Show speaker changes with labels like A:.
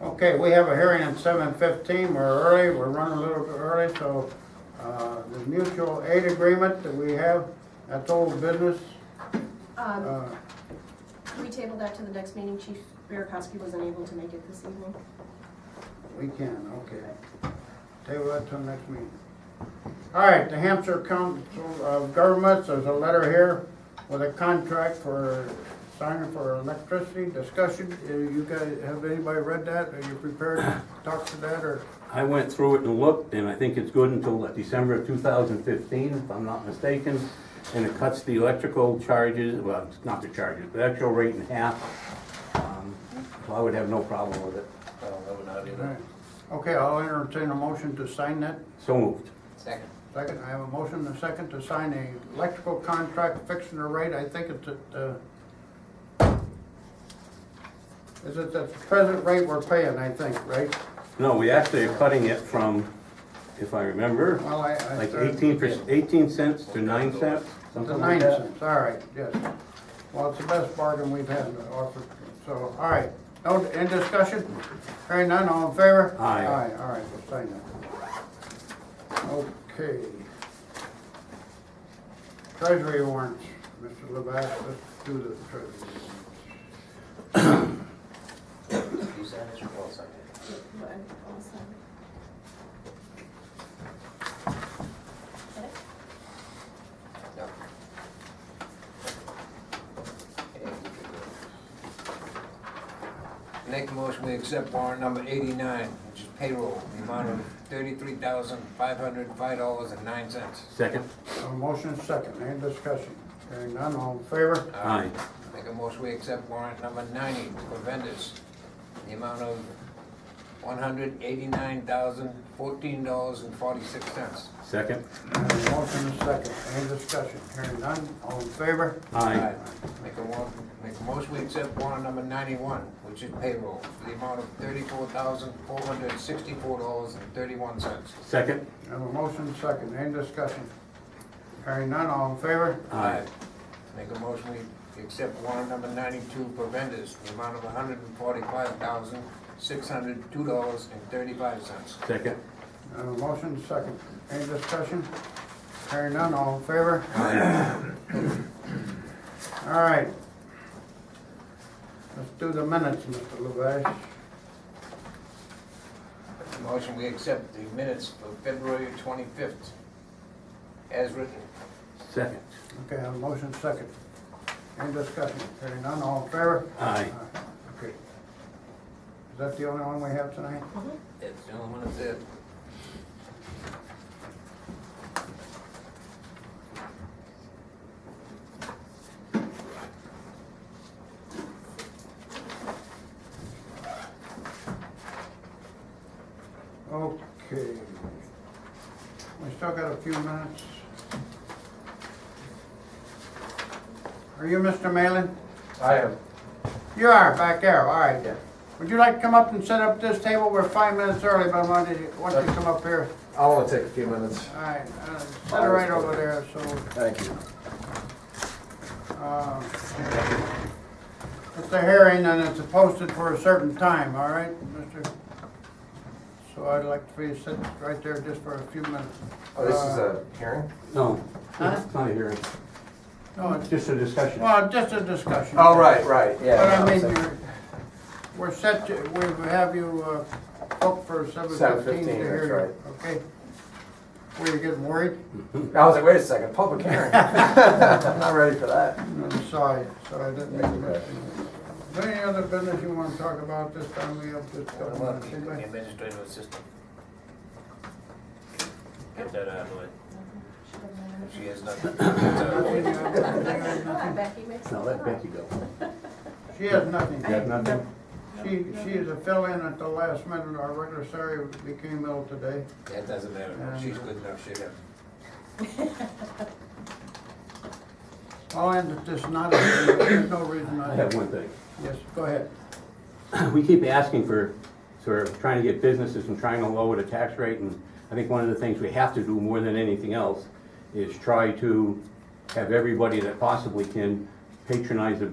A: Okay, we have a hearing at seven fifteen, we're early, we're running a little bit early, so, uh, the mutual aid agreement that we have, that's old business,
B: Um,
A: uh,
B: can we table that to the next meeting? Chief Bierkowski wasn't able to make it this evening.
A: we can, okay. Table that till next meeting. All right, the Hampshire Council of Governments, there's a letter here with a contract for signing for electricity discussion. Uh, You guys, have anybody read that? Are you prepared to talk to that, or?
C: I went through it and looked, and I think it's good until December of 2015, if I'm not mistaken. And it cuts the electrical charges, well, it's not the charges, the actual rate in half. Um, So I would have no problem with it.
A: Right. Okay, I'll entertain a motion to sign that.
C: So moved.
D: Second.
A: Second, I have a motion and a second to sign a electrical contract fixing the rate. I think it's at, uh, is it the present rate we're paying, I think, right?
C: No, we actually are cutting it from, if I remember,
A: Well, I, uh, I.
C: like 18 per- 18 cents to 9 cents,
A: The
C: something like
A: nine
C: that.
A: cents, all right, yes. Well, it's the best bargain we've had to offer, so, all right. No, in discussion? Hearing none, all in favor?
C: Aye.
A: Aye, all right, we'll sign that. Okay. Treasury warrants, Mr. Levack, let's do the treasury.
D: You said it, well, second.
B: But I'll sign. Okay.
D: No. Okay, you can do it. Make a motion, we accept warrant number eighty-nine, which is payroll, the amount of thirty-three thousand, five hundred and five dollars and nine cents.
C: Second?
A: A motion is second, any discussion? Hearing none, all in favor?
C: Aye.
D: Make a motion, we accept warrant number ninety for vendors, the amount of one hundred eighty-nine thousand, fourteen dollars and forty-six cents.
C: Second?
A: A motion is second, any discussion? Hearing none, all in favor?
C: Aye.
D: Make a warrant, make a motion, we accept warrant number ninety-one, which is payroll, for the amount of thirty-four thousand, four hundred and sixty-four dollars and thirty-one cents.
C: Second?
A: I have a motion is second, any discussion? Hearing none, all in favor?
C: Aye.
D: Make a motion, we accept warrant number ninety-two for vendors, the amount of hundred and forty-five thousand, six hundred, two dollars and thirty-five cents.
C: Second?
A: I have a motion is second, any discussion? Hearing none, all in favor? All right. Let's do the minutes, Mr. Levash.
D: Motion, we accept the minutes for February twenty-fifth, as written.
C: Second?
A: Okay, I have a motion is second, any discussion? Hearing none, all in favor?
C: Aye.
A: Okay. Is that the only one we have tonight?
D: That's the only one that's it.
A: Okay. We still got a few minutes. Are you Mr. Malin?
E: I am.
A: You are, back there, all right. Would you like to come up and set up this table? We're five minutes early, but I wanted you, want you to come up here.
E: I want to take a few minutes.
A: All right, uh, set it right over there, so,
E: Thank you.
A: uh, it's a hearing and it's posted for a certain time, all right, Mr.? So I'd like for you to sit right there just for a few minutes. Uh,
E: Oh, this is a hearing?
C: No,
A: Huh?
C: it's not a hearing.
A: No, it's,
C: Just a discussion.
A: well, just a discussion.
E: Oh, right, right, yeah.
A: But I
E: no,
A: mean,
E: so-
A: you're, we're set to, we have you, uh, booked for seven fifteen
E: 7:15,
A: to
E: that's
A: hear you, okay? Were you getting worried?
E: I was like, wait a second, public hearing? I'm not ready for that.
A: I'm sorry, sorry, I didn't make a mention. Is there any other business you wanna talk about this time we have to talk about?
D: The
A: anybody?
D: administrative assistant. Get that out of the way.
B: Should have known.
D: She has nothing. uh, It's out of the
A: Any
D: way.
A: other- any other
B: Come on,
A: nothing?
B: Becky, make some
C: No, let Becky go.
A: She has nothing.
C: You got nothing?
A: She, she is a fill-in at the last minute, our regular secretary became ill today.
D: That doesn't matter. She's good enough, she can.
A: I'll end it this night, there's no reason
C: I
A: I,
C: have one thing.
A: yes, go ahead.
C: We keep asking for, for trying to get businesses and trying to lower the tax rate, and I think one of the things we have to do more than anything else is try to have everybody that possibly can patronize a